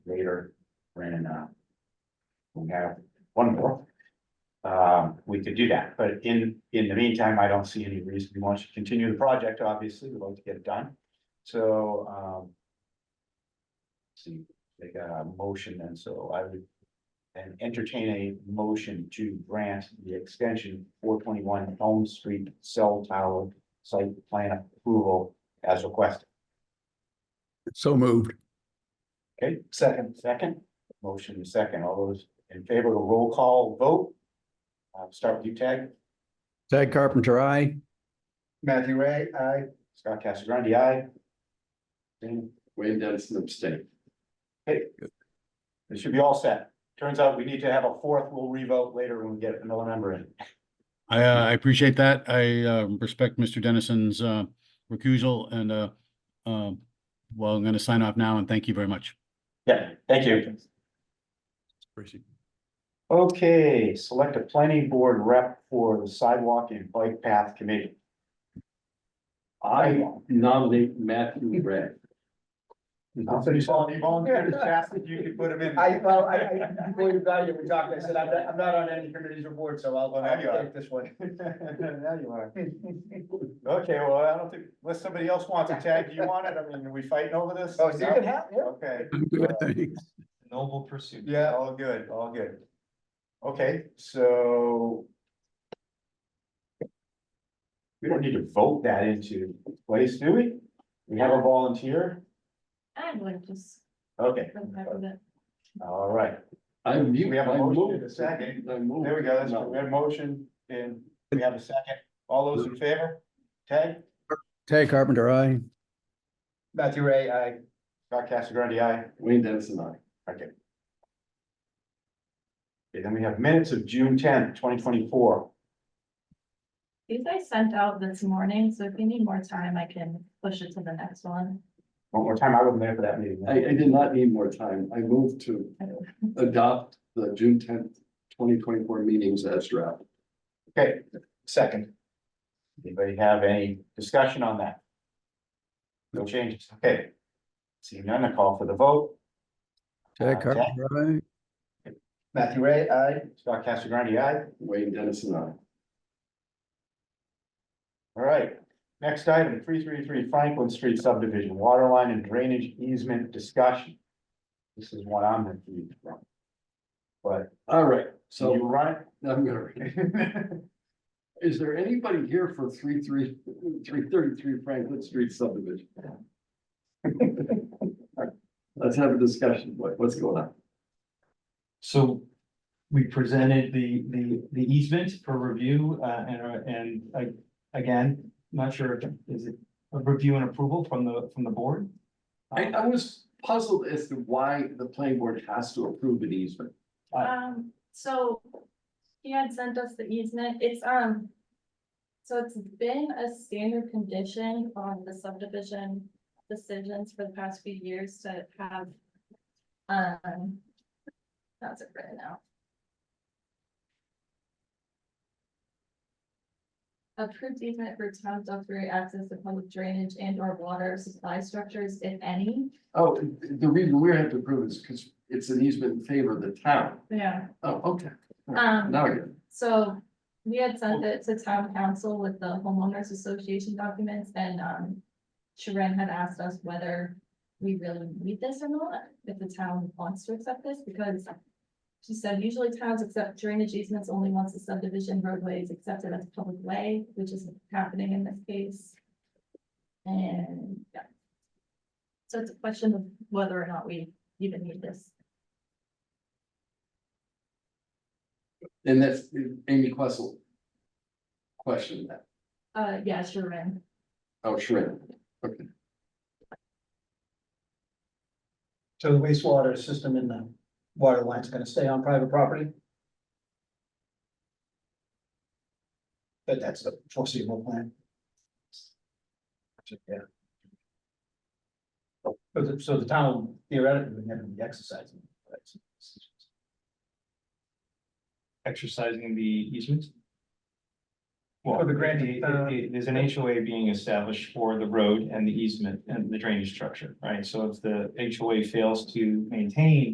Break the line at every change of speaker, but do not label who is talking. here in, uh. We have one more. Um, we could do that, but in, in the meantime, I don't see any reason we want to continue the project, obviously, we'd like to get it done, so, um. See, they got a motion, and so I would. And entertain a motion to grant the extension four twenty-one Elm Street Cell Tower Site Plan Approval as requested.
So moved.
Okay, second, second, motion is second, all those in favor of a roll call vote? Uh, start with you, Tag.
Ted Carpenter, I.
Matthew Ray, aye. Scott Casagrande, aye. And
Wayne Dennison abstained.
it should be all set. Turns out we need to have a fourth, we'll revote later when we get another member in.
I, uh, I appreciate that. I, uh, respect Mr. Dennison's, uh, recusal and, uh, um, well, I'm going to sign off now and thank you very much.
Yeah, thank you.
Appreciate
Okay, select a planning board rep for the sidewalk and bike path committee.
I nominate Matthew Ray.
I'm pretty solid, you volunteered as fast as you could put him in.
I, well, I, I, before you got here, we talked, I said, I'm, not- I'm not on any committees or boards, so I'll,
There you
I'll
are.
take this one.
Now you are.
Oh,
Okay, well, I don't think, unless somebody else wants it, Tag, do you want it? I mean, are we fighting over this?
Oh, so you
No?
can have, yeah.
Okay,
it.
Noble pursuit.
yeah, all good, all good. Okay, so. We don't need to vote that into place, do we? We have a volunteer?
I would just.
Okay,
go back with it.
all right.
I mute.
We have a
I
motion
move-
and a second.
I move.
There we go, that's,
No.
we have a motion and we have a second. All those in favor? Tag,
Ted Carpenter, I.
Matthew Ray, I,
Scott Castagrande, aye.
Wayne Dennison, I.
Okay. Okay, then we have minutes of June tenth, twenty twenty-four.
These I sent out this morning, so if you need more time, I can push it to the next one.
One more time, I wasn't there for that meeting.
I, I did not need more time. I move to adopt the June tenth, twenty twenty-four meetings as draft.
Okay,
second.
anybody have any discussion on that? No changes, okay. Seeing none, I call for the vote.
Ted Carpenter, I.
Matthew Ray, I,
Scott Castagrande, aye.
Wayne Dennison, I.
All right, next item, three three three Franklin Street subdivision, water line and drainage easement discussion. This is what I'm confused from. But
All right,
so you
so
run
I'm gonna,
it.
is there anybody here for three, three, three thirty-three Franklin Street subdivision? Let's have a discussion. What, what's going on?
So we presented the, the, the easement for review, uh, and, uh, and, uh, again, not sure, if is it a review and approval from the, from the board?
I, I was puzzled as to why the planning board has to approve an easement.
Aye.
Um, so he had sent us the easement, it's, um. So it's been a standard condition on the subdivision decisions for the past few years to have. Um. That's it right now. Approved easement for town of three access to public drainage and or water supply structures, if any.
Oh, the reason we have to approve is because it's an easement in favor of the town.
Yeah.
Oh, okay. All right,
Um.
Now I get it.
So we had sent it to town council with the homeowners association documents and um. Sharon had asked us whether we really need this or not, if the town wants to accept this, because. She said usually towns accept drainage easements only once the subdivision roadway is accepted as a public way, which is happening in this case. And, yeah. So it's a question of whether or not we even need this.
And that's Amy Questle. Questioned that.
Uh, yeah, Sharon.
Oh, sure.
so the wastewater system in the water line's gonna stay on private property? But that's the foreseeable plan. Yeah. So the, so the town theoretically would never be exercising. rights.
Exercising the easement? Well,
For the grant,
the-
uh,
the- there's an HOA being established for the road and the easement and the drainage structure, right? So if the HOA fails to maintain